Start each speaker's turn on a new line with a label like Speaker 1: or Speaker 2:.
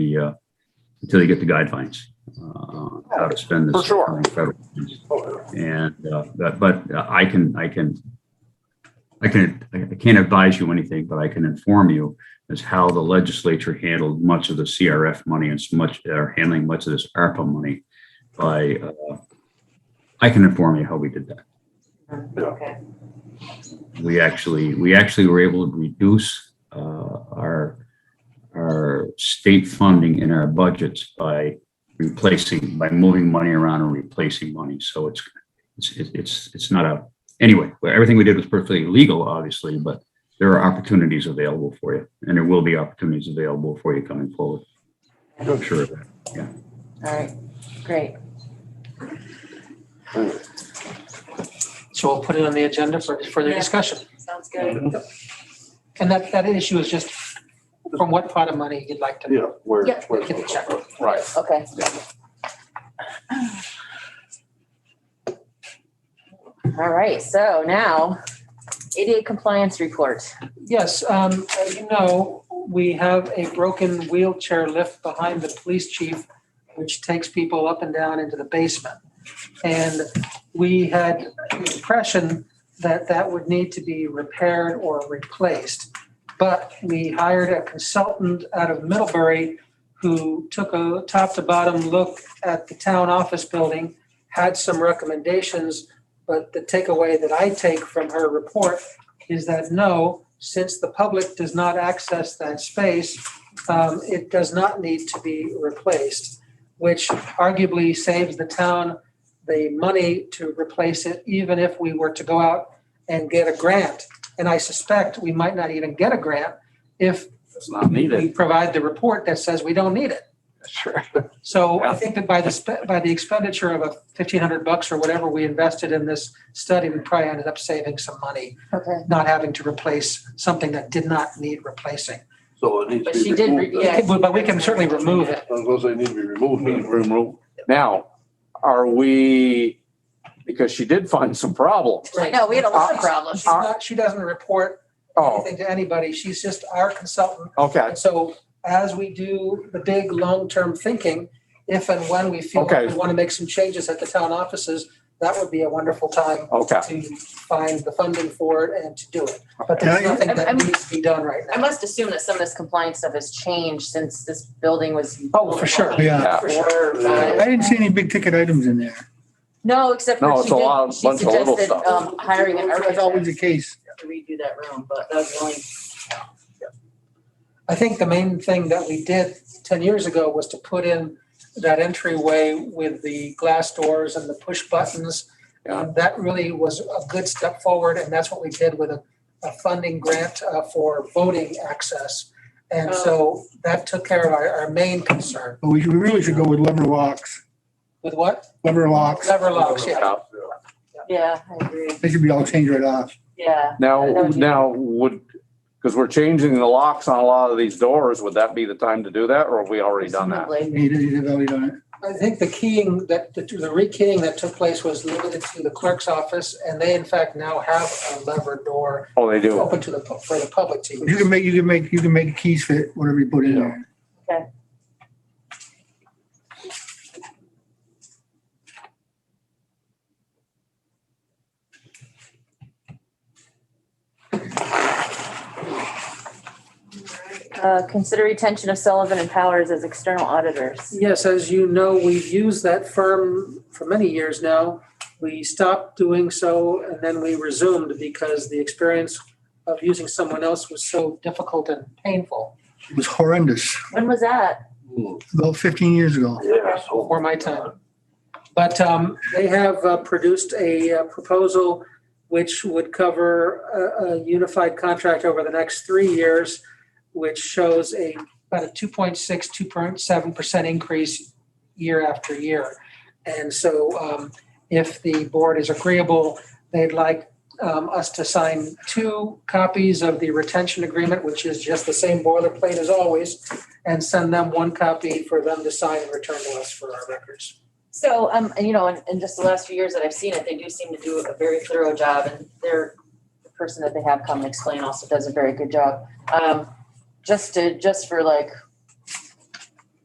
Speaker 1: the, uh, until they get the guidelines, uh, how to spend this.
Speaker 2: For sure.
Speaker 1: federal funds. And, uh, but, but I can, I can, I can, I can't advise you anything, but I can inform you as how the legislature handled much of the CRF money and so much, are handling much of this ARPA money by, uh, I can inform you how we did that
Speaker 3: Okay.
Speaker 1: we actually, we actually were able to reduce uh, our, our state funding in our budgets by replacing, by moving money around and replacing money. So it's, it's, it's, it's not a, anyway, well, everything we did was perfectly legal, obviously, but there are opportunities available for you and there will be opportunities available for you coming forward. I'm sure of that.
Speaker 3: All right, great.
Speaker 4: So we'll put it on the agenda for further
Speaker 3: Yeah.
Speaker 4: discussion.
Speaker 3: Sounds good.
Speaker 4: And that, that issue is just from what pot of money you'd like to
Speaker 2: Yeah, where,
Speaker 3: Yeah.
Speaker 2: where,
Speaker 4: get the check.
Speaker 2: right.
Speaker 3: Okay. All right, so now ADA compliance report.
Speaker 4: Yes, um, as you know, we have a broken wheelchair lift behind the police chief, which takes people up and down into the basement. And we had the impression that that would need to be repaired or replaced. But we hired a consultant out of Middlebury who took a top to bottom look at the town office building, had some recommendations. But the takeaway that I take from her report is that no, since the public does not access that space, um, it does not need to be replaced, which arguably saves the town the money to replace it, even if we were to go out and get a grant. And I suspect we might not even get a grant if
Speaker 5: It's not
Speaker 4: we
Speaker 5: needed.
Speaker 4: provide the report that says we don't need it.
Speaker 5: Sure.
Speaker 4: So I
Speaker 5: Yeah.
Speaker 4: think that by the, spe- by the expenditure of a fifteen hundred bucks or whatever we invested in this study, we probably ended up saving some money
Speaker 3: Okay.
Speaker 4: not having to replace something that did not need replacing.
Speaker 2: So it needs
Speaker 3: But
Speaker 2: to be
Speaker 3: she did re-
Speaker 2: removed. then.
Speaker 3: yeah. Yes.
Speaker 4: But but we can certainly remove it.
Speaker 2: I was gonna say, need to be removed. then.
Speaker 5: Now, are we, because she did find some problems.
Speaker 3: No, we had a lot of problems.
Speaker 4: She's not, she doesn't report
Speaker 5: Oh,
Speaker 4: anything to anybody. She's just our consultant.
Speaker 5: okay.
Speaker 4: And so as we do the big long-term thinking, if and when we feel
Speaker 5: Okay.
Speaker 4: we want to make some changes at the town offices, that would be a wonderful time
Speaker 5: Okay.
Speaker 4: to find the funding for it and to do it. But
Speaker 6: Can
Speaker 4: there's
Speaker 6: I-
Speaker 4: nothing that
Speaker 3: I'm-
Speaker 4: needs to be done right
Speaker 3: I
Speaker 4: now.
Speaker 3: must assume that some of this compliance stuff has changed since this building was.
Speaker 4: Oh, for sure.
Speaker 6: Yeah.
Speaker 3: For sure.
Speaker 2: Yeah.
Speaker 6: I didn't see any big ticket items in there.
Speaker 3: No, except
Speaker 5: No,
Speaker 3: for
Speaker 5: it's
Speaker 3: she
Speaker 5: a lot
Speaker 3: did,
Speaker 5: of-
Speaker 3: she
Speaker 5: bunch of little
Speaker 3: suggested
Speaker 5: stuff.
Speaker 3: um, hiring an
Speaker 6: That's always the
Speaker 3: architect
Speaker 6: case.
Speaker 3: to redo that room, but that was the only.
Speaker 4: I think the main thing that we did ten years ago was to put in that entryway with the glass doors and the push buttons.
Speaker 5: Yeah.
Speaker 4: And that really was a good step forward, and that's what we did with a, a funding grant uh, for voting access. And so that took care of our, our main concern.
Speaker 6: But we should- we really should go with lever locks,
Speaker 4: With what?
Speaker 6: lever locks.
Speaker 4: Lever locks, yeah.
Speaker 5: Yeah.
Speaker 3: Yeah, I agree.
Speaker 6: They should be all changed right off.
Speaker 3: Yeah.
Speaker 5: Now, now would, because we're changing the locks on a lot of these doors, would that be the time to do that or have we already done that?
Speaker 3: presumably.
Speaker 6: He did, he did value on it.
Speaker 4: I think the keying that, the the rekeying that took place was limited to the clerk's office, and they in fact now have a lever door
Speaker 5: Oh, they do.
Speaker 4: open to the, pu- for the public to use.
Speaker 6: You can make, you can make, you can make keys fit whatever you put in there.
Speaker 3: Uh, Consider retention of Sullivan and Powers as external auditors.
Speaker 4: Yes, as you know, we've used that firm for many years now. We stopped doing so and then we resumed because the experience of using someone else was so difficult and painful
Speaker 6: It was horrendous,
Speaker 3: When was that?
Speaker 2: Hmm,
Speaker 6: about fifteen years ago.
Speaker 2: Yeah, so.
Speaker 4: before my time. But um, they have uh, produced a uh, proposal which would cover a, a unified contract over the next three years, which shows a about a 2.6, 2.7% increase year after year. And so um, if the board is agreeable, they'd like um, us to sign two copies of the retention agreement, which is just the same boilerplate as always, and send them one copy for them to sign and return to us for our records.
Speaker 3: So, um, and, you know, in, in just the last few years that I've seen it, they do seem to do a very thorough job and they're, the person that they have come and explain also does a very good job. Um, just to, just for like